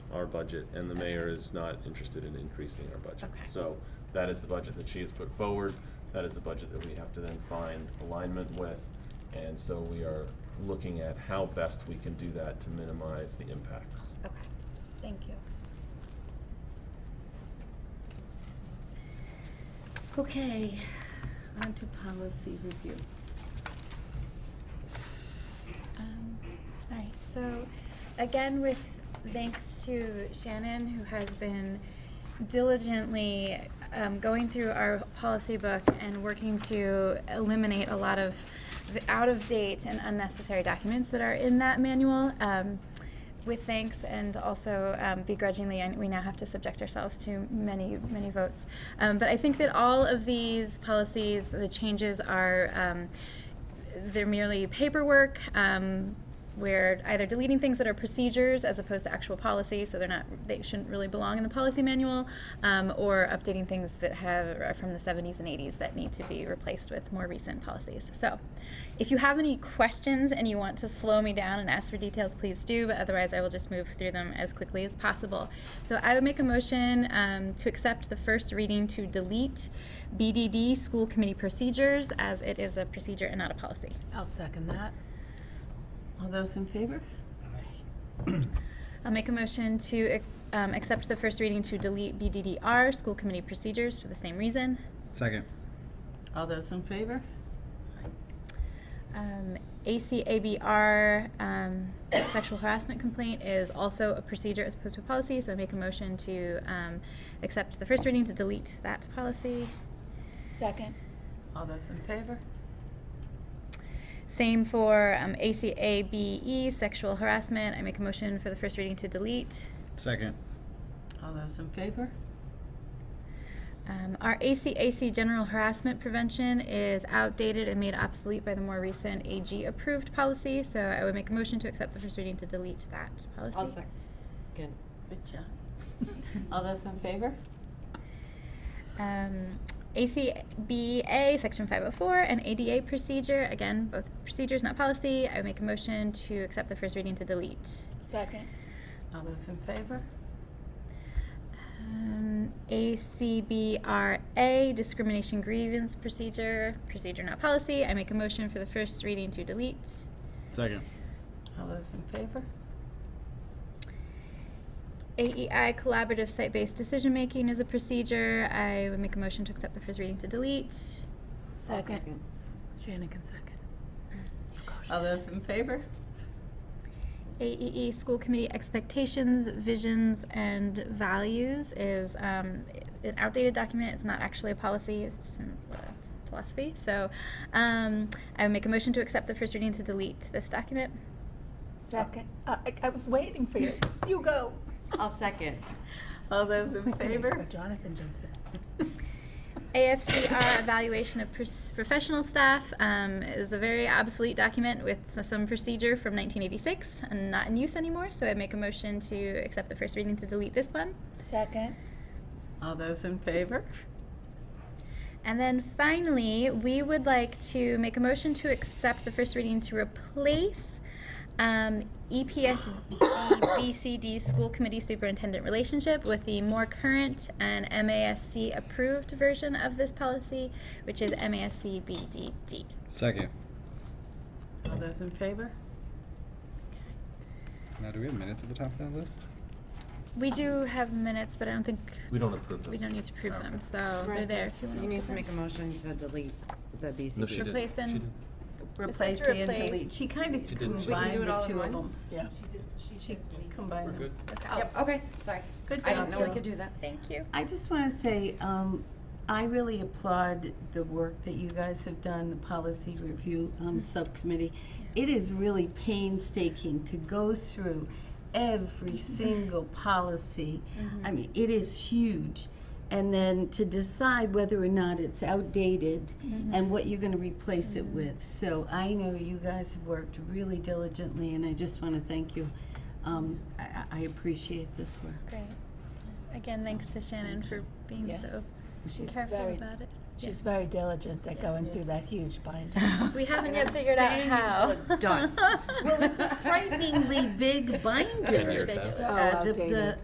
our budget, and the mayor is not interested in increasing our budget. Okay. So that is the budget that she has put forward, that is the budget that we have to then find alignment with. And so we are looking at how best we can do that to minimize the impacts. Okay, thank you. Okay, on to policy review. Um, all right, so again, with thanks to Shannon, who has been diligently um, going through our policy book and working to eliminate a lot of the out of date and unnecessary documents that are in that manual. Um, with thanks and also um, begrudgingly, and we now have to subject ourselves to many, many votes. Um, but I think that all of these policies, the changes are. Um, they're merely paperwork. Um, we're either deleting things that are procedures as opposed to actual policy, so they're not they shouldn't really belong in the policy manual, um, or updating things that have are from the 70s and 80s that need to be replaced with more recent policies. So, if you have any questions and you want to slow me down and ask for details, please do. But otherwise, I will just move through them as quickly as possible. So, I would make a motion um, to accept the first reading to delete BDD school committee procedures as it is a procedure and not a policy. I'll second that. All those in favor? I'll make a motion to um, accept the first reading to delete BDDR, school committee procedures, for the same reason. Second. All those in favor? Um, ACABR, um, sexual harassment complaint, is also a procedure as opposed to a policy, so I make a motion to um, accept the first reading to delete that policy. Second. All those in favor? Same for um, ACABE, E, sexual harassment. I make a motion for the first reading to delete. Second. All those in favor? Um, our ACAC general harassment prevention is outdated and made obsolete by the more recent AG approved policy, so I would make a motion to accept the first reading to delete that policy. I'll second. Good job. All those in favor? Um, ACBA, section 504, and ADA procedure, again, both procedures, not policy. I would make a motion to accept the first reading to delete. Second. All those in favor? Um, ACBRA, discrimination grievance procedure, procedure, not policy. I make a motion for the first reading to delete. Second. All those in favor? AEI, E collaborative site-based decision-making is a procedure. I would make a motion to accept the first reading to delete. Second. Shannon can second. All those in favor? AEE, E school committee expectations, visions, and values is um, an outdated document. It's not actually a policy, it's just a philosophy. So um, I would make a motion to accept the first reading to delete this document. Second. Uh, I, I was waiting for you. You go. I'll second. All those in favor? Jonathan jumps in. AFCR evaluation of pers- professional staff um, is a very obsolete document with some procedure from 1986 and not in use anymore. So I make a motion to accept the first reading to delete this one. Second. All those in favor? And then finally, we would like to make a motion to accept the first reading to replace um, EPSD BCD School Committee Superintendent Relationship with the more current and MASC approved version of this policy, which is MASC BDD. Second. All those in favor? Now, do we have minutes at the top of that list? We do have minutes, but I don't think We don't approve we those. don't need to prove them, so they're there if you want to. You need to make a motion to delete the BCD. No, she didn't. Replace and- She didn't. Replace to and replace. delete. She kind of She didn't. She- We can do combined it all the in two of one? them. Yeah. She combined We're them. good. Oh, okay, sorry. Good I didn't job, know we Jill. could do that. Thank you. I just want to say, um, I really applaud the work that you guys have done, the policy review, um, subcommittee. It is really painstaking to go through every single policy. I mean, it is huge. And then to decide whether or not it's outdated and what you're going to replace it with. So I know you guys have worked really diligently, and I just want to thank you. Um, I- I, I appreciate this work. Great. Again, thanks to Shannon for being so Yes. She's careful very, about it. she's very diligent at going through that huge binder. We haven't yet figured out how. Until it's done. Well, it's a frighteningly big binder. Ten years out. So Uh, the- the- outdated.